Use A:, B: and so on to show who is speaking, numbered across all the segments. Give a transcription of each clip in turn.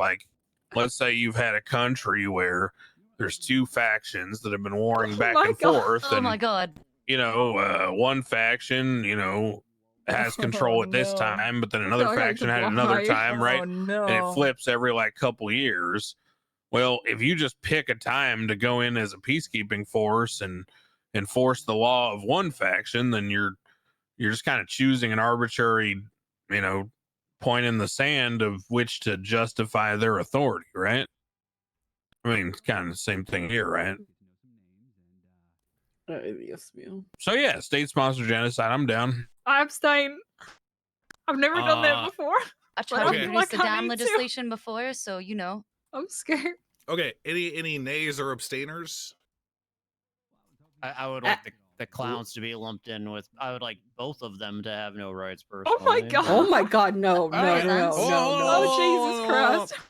A: like let's say you've had a country where there's two factions that have been warring
B: Oh
A: back
B: my
A: and
B: God.
A: forth
C: Oh
A: and
C: my god.
A: you know uh, one faction you know has control
B: Oh,
A: at this
B: no.
A: time but then another
B: Sorry,
A: faction had
B: why?
A: another time right
B: Oh, no.
A: and it flips every like couple years. Well, if you just pick a time to go in as a peacekeeping force and enforce the law of one faction, then you're you're just kind of choosing an arbitrary, you know, point in the sand of which to justify their authority, right? I mean, it's kind of the same thing here, right?
D: Uh, yes, ma'am.
A: So yeah, state sponsored genocide. I'm down.
B: I abstain. I've never done
E: Uh,
B: that before.
C: I tried
E: Okay.
C: to introduce
B: Like,
C: the
B: I
C: damn
B: need to.
C: legislation before, so you know.
B: I'm scared.
E: Okay. Any any nays or abstainers?
F: I, I would
B: Uh,
D: Ah,
F: like the, the clowns to be lumped in with. I would like both of them to have no rights. Personally.
B: my God.
D: Oh my God, no, no, no,
C: Alright,
D: no,
C: that's-
D: no,
B: Oh,
D: no.
B: Jesus Christ.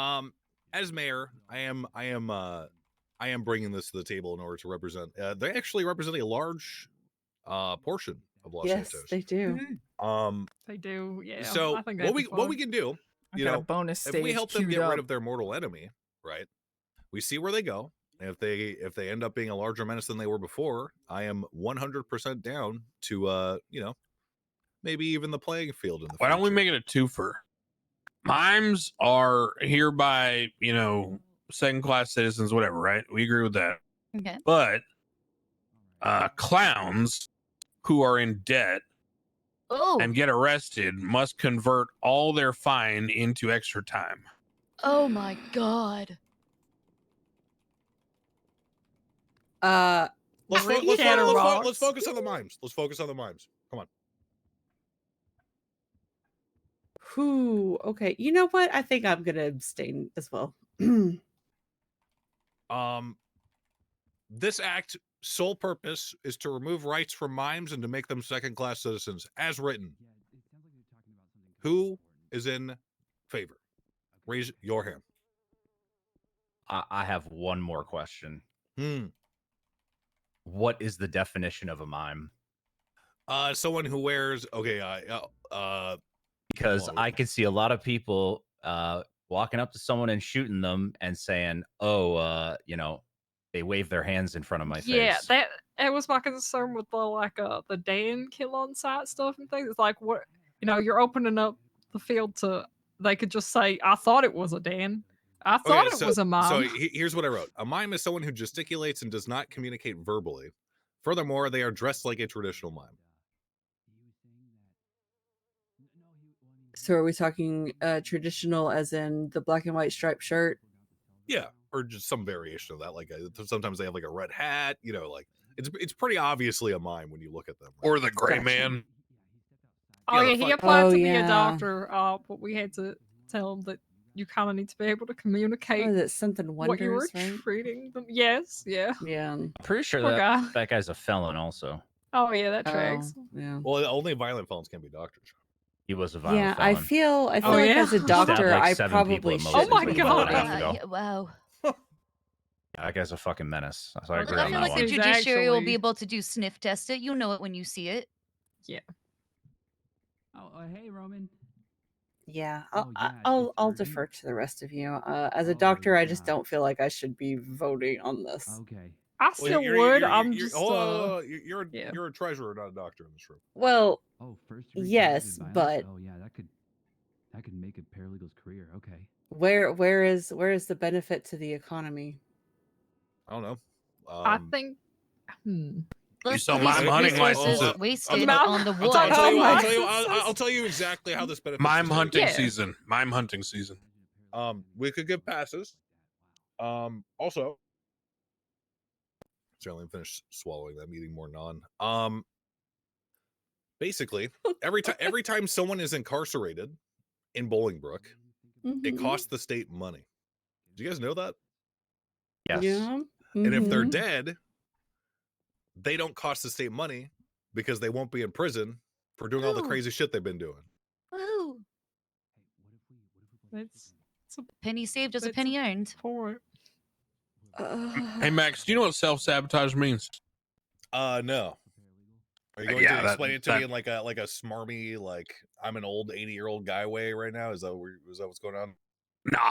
E: Um, as mayor, I am I am uh I am bringing this to the table in order to represent. Uh, they actually represent a large uh portion of Los
D: Yes,
E: Santos.
D: they do.
B: Mm-hmm.
C: Mhm.
E: Um,
B: They do, yeah.
E: so
B: I think
E: what we what we can do,
G: I
E: you
G: got a
E: know,
G: bonus
E: if
G: stage
E: we help them
G: queued
E: get
G: up.
E: rid of their mortal enemy, right? We see where they go. And if they if they end up being a larger menace than they were before, I am 100% down to uh, you know, maybe even the playing field in the
A: Why don't we
E: future.
A: make it a twofer? Mimes are hereby, you know, second class citizens, whatever, right? We agree with that.
C: Okay.
A: But uh, clowns who are in debt
C: Oh.
A: and get arrested must convert all their fine into extra time.
C: Oh my god.
D: Uh,
E: Let's, fo-
B: Pretty
E: let's, fo-
B: Shadow
E: let's fo-
B: Rocks.
E: let's focus on the mimes. Let's focus on the mimes. Come on.
D: who? Okay, you know what? I think I'm gonna abstain as well.
E: Um, this act sole purpose is to remove rights from mimes and to make them second class citizens, as written. Who is in favor? Raise your hand.
H: I, I have one more question.
E: Hmm.
H: What is the definition of a mime?
E: Uh, someone who wears okay. Uh, uh, uh
H: Because
E: Well,
H: I can see a lot of people uh, walking up to someone and shooting them and saying, "Oh, uh, you know, they wave their hands in front of my
B: yeah,
H: face."
B: that that was my concern with the like uh the Dan kill on site stuff and things. It's like what you know, you're opening up the field to they could just say, I thought it was a Dan. I thought it was a mom.
E: So he- here's what I wrote: A mime is someone who gesticulates and does not communicate verbally. Furthermore, they are dressed like a traditional mime.
D: so, are we talking uh, traditional, as in the black and white striped shirt?
E: Yeah, or just some variation of that. Like uh, sometimes they have like a red hat. You know, like it's it's pretty obviously a mime when you look at them. right?
A: Or the gray
D: Gotcha.
A: man.
B: oh
E: yeah,
B: yeah,
E: the
B: he
E: fuck-
B: applied
D: Oh,
B: to be
D: yeah.
B: a doctor, uh, but we had to tell him that you kinda need to be able to communicate
D: What is it? Something
B: what you were
D: wondrous, right?
B: treating them. Yes, yeah.
D: Yeah.
H: I'm pretty sure
B: Poor
H: that
B: guy.
H: that guy's a felon. Also,
B: Oh yeah, that
D: Oh,
B: tracks.
E: Um,
D: yeah.
E: Well, uh, only violent felons can be doctors.
H: he was a violent
D: Yeah, I
H: felon.
D: feel. I feel
B: Oh,
D: like
B: yeah?
D: as a
B: Stabbed,
D: doctor,
H: like,
D: I
H: seven people
D: probably
H: at
D: should.
H: most
B: Oh my
D: be
B: God.
D: voting.
C: Uh,
H: ago.
C: yeah, wow.
H: That guy's a fucking menace. So I
C: I
H: agree
C: feel
H: on that
C: like
H: one.
C: the
B: He's
C: judiciary will
B: actually-
C: be able to do sniff test it. You know it when you see it.
I: Oh, uh, hey, Roman.
D: Yeah,
I: Oh,
D: I'll, I-
I: yeah,
D: I'll I'll defer
I: defer.
D: to the rest of you. Uh, as a
I: Oh,
D: doctor, I just
I: yeah. Oh.
D: don't feel like I should be voting on this.
I: Okay.
B: I
E: Well,
B: still
E: you're-
B: would.
E: you're-
B: I'm
E: you're- oh,
B: just
E: hold on, hold on,
B: uh,
E: hold on, you're you're, a-
B: yeah.
E: you're a treasurer, not a doctor in this room.
D: Well,
I: Oh, first. degree
D: Yes,
I: domestic
D: but-
I: violence? Oh, yeah, that could that could make a paralegal's career. Okay.
D: where where is where is the benefit to the economy?
E: I don't know. Um,
B: I think hmm.
C: Plus,
A: saw
C: the
A: my
C: res-
A: hunting
C: resources
A: license.
C: wasted
B: Mouth-
C: on the
E: I'll,
C: wood.
E: tell, I'll tell you, I'll,
B: my
E: tell you, I'll,
B: goodness.
E: I'll tell you exactly how this benefits.
A: Mime
E: the city.
A: hunting
B: Yeah.
A: season. Mime hunting season.
E: Um, we could give passes. Um, also, certainly I'm finished swallowing that, eating more non. Um, basically, every time every time someone is incarcerated in Bolingbrook, it
D: Mhm.
A: Mm-hmm.
E: costs the state money. Do you guys know that?
H: Yes.
D: Yeah.
E: And if
A: Mm-hmm.
E: they're
D: mhm.
E: dead, they don't cost the state money because they won't be in prison for doing all the
C: Oh.
E: crazy shit they've been doing.
C: Woo.
B: That's it's a
C: Penny saved is a
B: That's-
C: penny earned.
B: point.
D: Uh,
A: Hey Max, do you know what self sabotage means?
E: Uh, no. Are you
A: Uh,
E: going
A: yeah,
E: to
A: that-
E: explain it to
A: that-
E: me in like a like a smarmy like I'm an old eighty year old guy way right now? Is that where, is that what's going on?
A: No,